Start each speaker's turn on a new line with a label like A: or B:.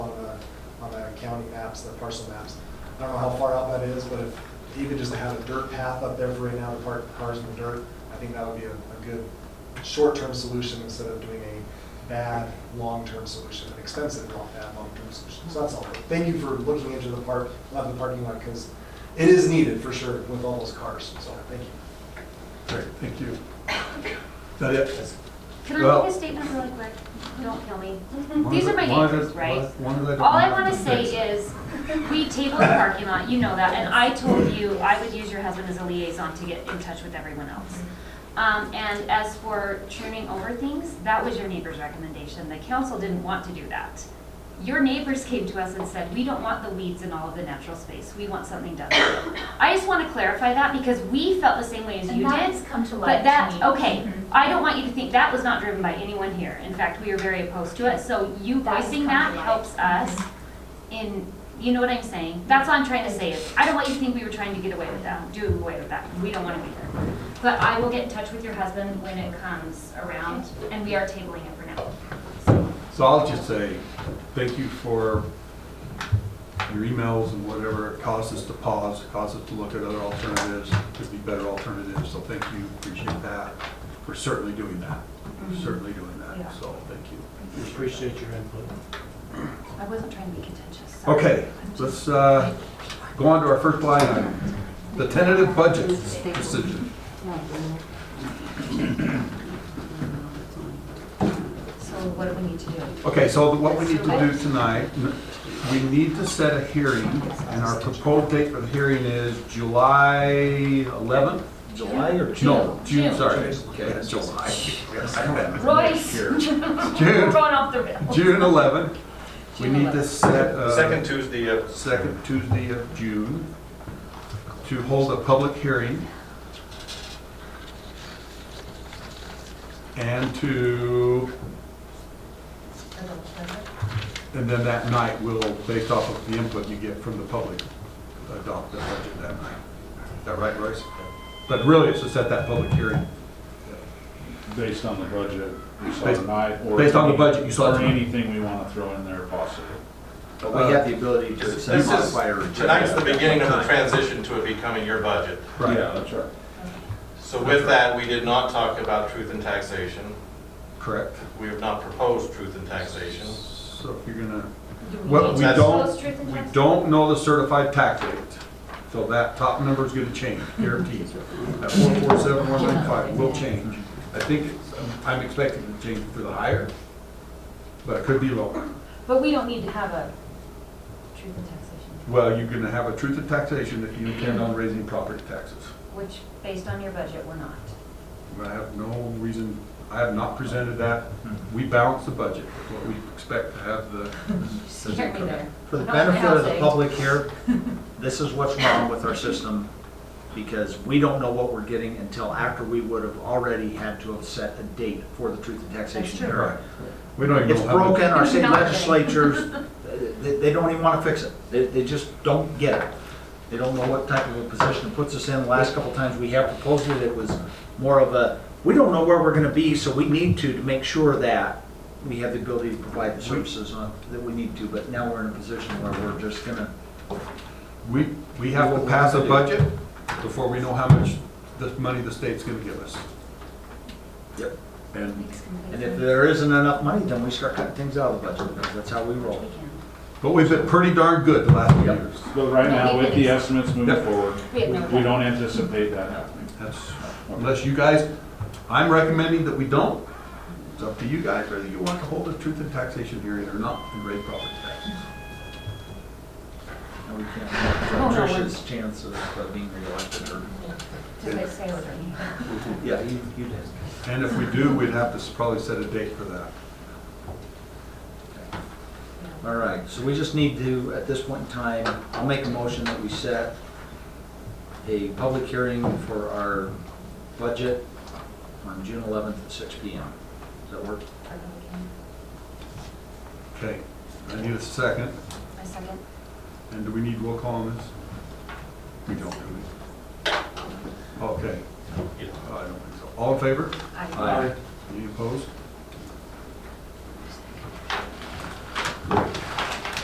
A: county maps, their parcel maps. I don't know how far out that is, but if, even just to have a dirt path up there for right now to park cars in the dirt, I think that would be a, a good short-term solution instead of doing a bad, long-term solution, an expensive, long, bad, long-term solution. So that's all. Thank you for looking into the park, love the parking lot, because it is needed for sure with all those cars, so thank you.
B: Great, thank you. Is that it?
C: Can I
B: Well-
C: make a statement really quick? Don't kill me. Mm, These are my
B: One of the-
C: neighbors, right?
B: one of the-
C: All I want to say is, we tabled the parking lot, you know that, and I told you I would use your husband as a liaison to get in touch with everyone else. Um, and as for churning over things, that was your neighbor's recommendation. The council didn't want to do that. Your neighbors came to us and said, we don't want the weeds in all of the natural space, we want something done. I just want to clarify that because we felt the same way as
D: And
C: you
D: that
C: did.
D: has come to light
C: But that,
D: to me.
C: okay,
D: Mhm.
C: I don't want you to think, that was not driven by anyone here. In fact, we are very opposed to it, so you
D: That has
C: voicing
D: come
C: that
D: to light.
C: helps us in, you know what I'm saying? That's all I'm trying to say is, I don't want you to think we were trying to get away with that, do away with that. We don't want to be there. But I will get in touch with your husband when it comes around, and we are tabling it for now. So,
B: So I'll just say, thank you for your emails and whatever. It caused us to pause, it caused us to look at other alternatives, could be better alternatives, so thank you, appreciate that. We're certainly doing that, certainly doing
C: Mm-hmm. Yeah.
B: that, so thank you.
E: We appreciate your input.
C: I wasn't trying to be contentious. sorry.
B: Okay, let's uh, go on to our first line item, the tentative budget decision.
D: So what do we need to do?
B: Okay, so what we need to do tonight, we need to set a hearing, and our proposed date for the hearing is July 11th?
F: July or
B: No, June,
C: June.
B: sorry.
F: Okay.
B: Yeah, July.
C: Royce,
B: June,
C: throwing off the rail.
B: June 11th. We need to set a...
F: Second Tuesday of
B: second Tuesday of June to hold a public hearing and to, and then that night we will, based off of the input you get from the public, adopt the budget that night. Is that right, Royce? But really, it's to set that public hearing.
G: Based on the budget we saw
B: Based-
G: tonight, or.
B: based on the
G: any-
B: budget you saw
G: Or
B: tonight.
G: anything we want to throw in there possibly.
F: But
B: we have
F: the ability
H: to accept, modify, or reject.
F: Tonight's the beginning of the transition to it becoming your budget.
G: Yeah, that's right.
F: So with that, we did not talk about truth in taxation.
B: Correct.
F: We have not proposed truth in taxation.
B: So if you're gonna,
C: Do
B: well,
C: need
B: we
C: to
B: don't,
C: close truth and
B: we
C: justice?
B: don't know the certified tax rate. So that top number is gonna change, guaranteed. That one four seven, one nine five will change. I think, it's- I'm expecting it to change for the higher, but it could be lower.
D: But we don't need to have a truth in taxation,
B: Well, you're gonna have a truth in taxation if you intend on raising property taxes.
D: which, based on your budget, we're not.
B: I have no reason, I have not presented that. We balance the budget, what we expect to have the
D: Scared me there.
H: For the
D: Not my
H: benefit of the
D: housing.
H: public here, this is what's wrong with our system, because we don't know what we're getting until after we would have already had to have set a date for the truth and taxation
D: That's true.
H: hearing.
B: Right. We don't even know
H: It's
B: how to-
H: broken, our state
D: Not good.
H: legislatures, uh, they, they don't even want to fix it. They, they just don't get it. They don't know what type of a position it puts us in. The Last couple times we have proposed it, it was more of a, we don't know where we're going to be, so we need to, to make sure that we have the ability to provide the services on, that we need to, but now we're in a position where we're just going to.
B: We, we have to pass a budget before we know how much this money the state's gonna give us.
H: Yep.
B: And,
C: Makes complete
H: And if there isn't enough money, then we start cutting things out of the budget, because that's how we roll.
C: sense.
B: but we've been pretty darn good the last few
H: Yep.
B: years.
G: But right now,
C: we
G: with the
C: can-
G: estimates moving
B: Yep.
G: forward,
D: We have no
G: we- we don't anticipate that happening.
B: That's, unless you guys, I'm recommending that we don't. It's up to you guys whether you want to hold a truth and taxation hearing or not and raise property taxes.
H: And we can't, Trish's chance of uh, being reelected or,
D: Did I say what I mean?
H: yeah, you, you did.
B: And if we do, we'd have to s- probably set a date for that.
H: All right, so we just need to, at this point in time, I'll make a motion that we set a public hearing for our budget on June 11th at 6 PM. Does that work?
B: Okay, I need a second.
C: My second.
B: And do we need roll call on this? We don't, do we? Okay. I don't think so. All in favor?
C: I-
H: Aye.
B: Any opposed?